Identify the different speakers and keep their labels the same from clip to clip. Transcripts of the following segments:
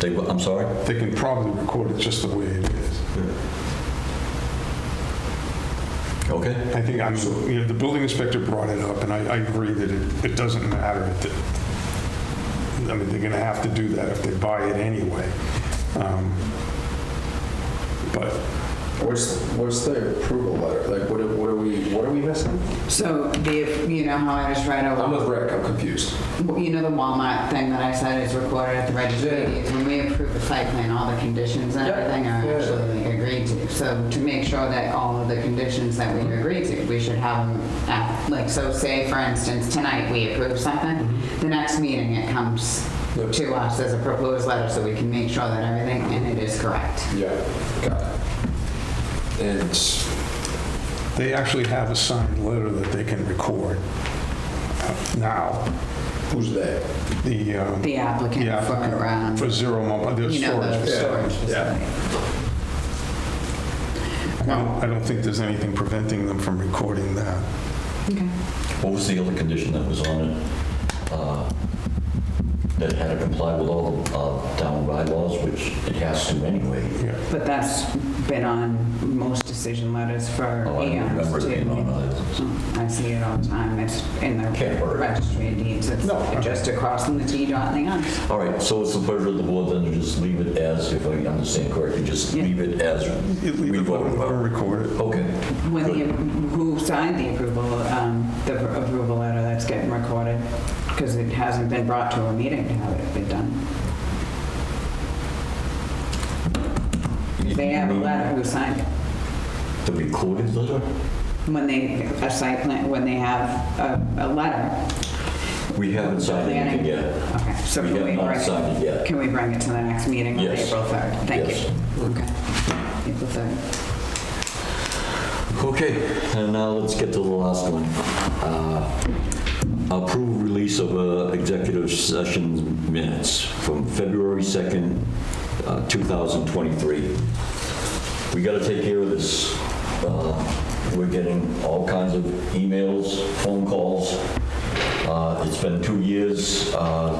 Speaker 1: They, wa- I'm sorry?
Speaker 2: They can probably record it just the way it is.
Speaker 1: Okay,
Speaker 2: I think, I'm, you know, the building inspector brought it up, and I, I agree that it, it doesn't matter. that- I mean, they're gonna have to do that if they buy it anyway. Um, But
Speaker 3: What's, what's the approval letter? Like, what are, what are we, what are we missing?
Speaker 4: So the, you know how I was right
Speaker 3: I'm
Speaker 4: over,
Speaker 3: with Rick, I'm confused.
Speaker 4: you know the Walmart thing that I said is recorded at the registry of deeds? When we approve the site plan, all the conditions and
Speaker 3: Yeah.
Speaker 4: everything are
Speaker 3: Yeah.
Speaker 4: actually like, agreed to. So to make sure that all of the conditions that we agreed to, we should have them, at- like, so say, for instance, tonight we approve something, the next meeting it comes
Speaker 3: Mm-hmm. Yep.
Speaker 4: to us as a proposed letter so we can make sure that everything, and it is correct.
Speaker 3: Yeah, got it. And,
Speaker 2: they actually have a signed letter that they can record uh, now,
Speaker 3: who's they?
Speaker 2: the, um,
Speaker 4: The applicant
Speaker 2: Yeah.
Speaker 4: for, um,
Speaker 2: for zero month, the
Speaker 4: you know, the
Speaker 2: storage.
Speaker 4: storage facility.
Speaker 2: I don't- I don't think there's anything preventing them from recording that.
Speaker 4: Okay.
Speaker 1: what was the other condition that was on it? uh, That had to comply with all the uh, town bylaws, which it has to anyway.
Speaker 2: Yeah.
Speaker 4: But that's been on most decision letters for
Speaker 1: Oh, I remember
Speaker 4: eons
Speaker 1: it
Speaker 4: too.
Speaker 1: being on others.
Speaker 4: Mm, I see it all the time, it's in the
Speaker 1: Can't worry.
Speaker 4: registry of deeds, it's
Speaker 2: No.
Speaker 4: just across from the T dot and the I.
Speaker 1: All right, so it's the pleasure of the board then to just leave it as, if I understand correctly, just
Speaker 4: Yeah.
Speaker 1: leave it as
Speaker 2: Leave
Speaker 1: we
Speaker 2: it
Speaker 1: voted
Speaker 2: or
Speaker 1: about.
Speaker 2: record it.
Speaker 1: Okay.
Speaker 4: When
Speaker 1: good.
Speaker 4: the, who signed the approval, um, the approval letter that's getting recorded? Because it hasn't been brought to a meeting to have it been done. If They have a letter, who signed it?
Speaker 1: The recorded letter?
Speaker 4: When they, a site plan, when they have a, a letter,
Speaker 1: We haven't signed anything yet.
Speaker 4: Okay, so
Speaker 1: We
Speaker 4: can
Speaker 1: have
Speaker 4: we
Speaker 1: not
Speaker 4: bring it,
Speaker 1: signed it yet.
Speaker 4: can we bring it to the next meeting on
Speaker 1: Yes.
Speaker 4: April 3rd? Thank you.
Speaker 1: Yes.
Speaker 4: Okay. April 3rd.
Speaker 1: Okay, and now let's get to the last one. Uh, Approve release of uh, executive session minutes from February 2nd, uh, 2023. We got to take care of this. Uh, We're getting all kinds of emails, phone calls. Uh, It's been two years. Uh,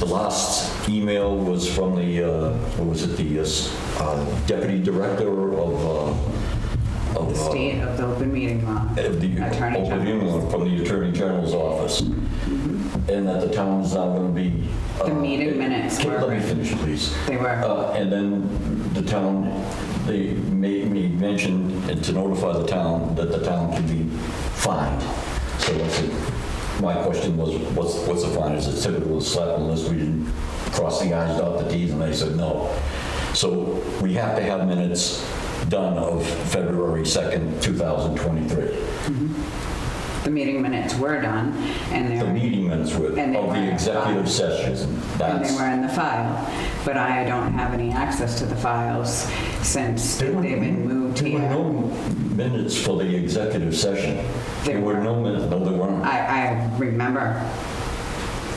Speaker 1: The last email was from the, uh, what was it, the uh, s- uh, deputy director of uh, of,
Speaker 4: The
Speaker 1: uh,
Speaker 4: state of the open meeting law.
Speaker 1: of the
Speaker 4: Attorney
Speaker 1: open
Speaker 4: General's.
Speaker 1: email from the Attorney General's office, and that the town is now going to be.
Speaker 4: The
Speaker 1: uh,
Speaker 4: meeting minutes
Speaker 1: Can-
Speaker 4: were-
Speaker 1: Let me finish, please.
Speaker 4: They were,
Speaker 1: Uh, And then the town, they made me mention to notify the town that the town can be fined. So that's it. My question was, what's, what's the fine? Is it typical of slap unless we didn't cross the i's, dot the t's? And they said no. So we have to have minutes done of February 2nd, 2023.
Speaker 4: the meeting minutes were done, and
Speaker 1: The
Speaker 4: they're,
Speaker 1: meeting minutes were, of
Speaker 4: And they
Speaker 1: the
Speaker 4: weren't
Speaker 1: executive
Speaker 4: filed.
Speaker 1: session.
Speaker 4: and they
Speaker 1: That's,
Speaker 4: were in the file. But I don't have any access to the files since
Speaker 1: They
Speaker 4: they've
Speaker 1: were-
Speaker 4: been moved
Speaker 1: there
Speaker 4: here.
Speaker 1: were no minutes for the executive session. There
Speaker 4: There
Speaker 1: were
Speaker 4: were.
Speaker 1: no minutes, no, there weren't.
Speaker 4: I, I remember.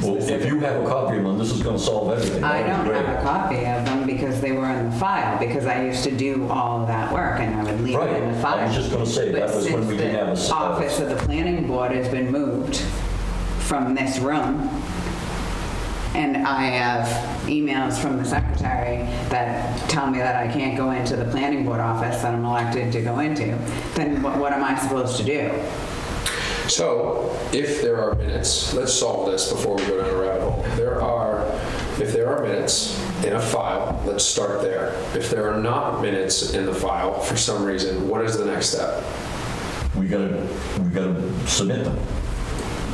Speaker 1: Well, if you have a copy of them, this is going to solve everything.
Speaker 4: I
Speaker 1: That
Speaker 4: don't
Speaker 1: was
Speaker 4: have a copy of them because they were in the file, because I used to do all of that work and I would leave
Speaker 1: Right,
Speaker 4: it in the file.
Speaker 1: I was just going to say, that
Speaker 4: But
Speaker 1: was when
Speaker 4: since
Speaker 1: we didn't have a. s-
Speaker 4: the office of the planning board has been moved from this room, and I have emails from the secretary that tell me that I can't go into the planning board office that I'm elected to go into, then what what am I supposed to do?
Speaker 3: So, if there are minutes, let's solve this before we go down a rabbit hole. There are, if there are minutes in a file, let's start there. If there are not minutes in the file for some reason, what is the next step?
Speaker 1: We got to, we got to submit them.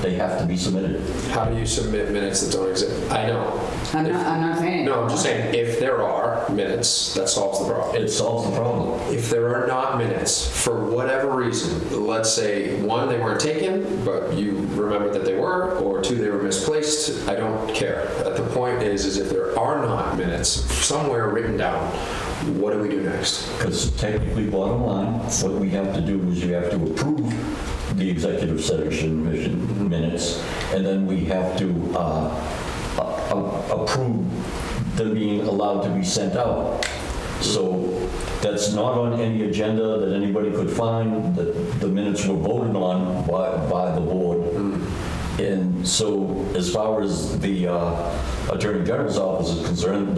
Speaker 1: They have to be submitted.
Speaker 3: How do you submit minutes that don't exist? I know.
Speaker 4: I'm not, I'm not saying.
Speaker 3: No, I'm just saying, if there are minutes, that solves the problem.
Speaker 1: It solves the problem.
Speaker 3: If there are not minutes, for whatever reason, let's say, one, they weren't taken, but you remember that they were, or two, they were misplaced, I don't care. But the point is, is if there are not minutes somewhere written down, what do we do next?
Speaker 1: Because technically, bottom line, what we have to do is you have to approve the executive session mission- minutes, and then we have to uh, a- a- approve them being allowed to be sent out. So that's not on any agenda that anybody could find, that the minutes were voted on by, by the board. And so as far as the uh, Attorney General's office is concerned,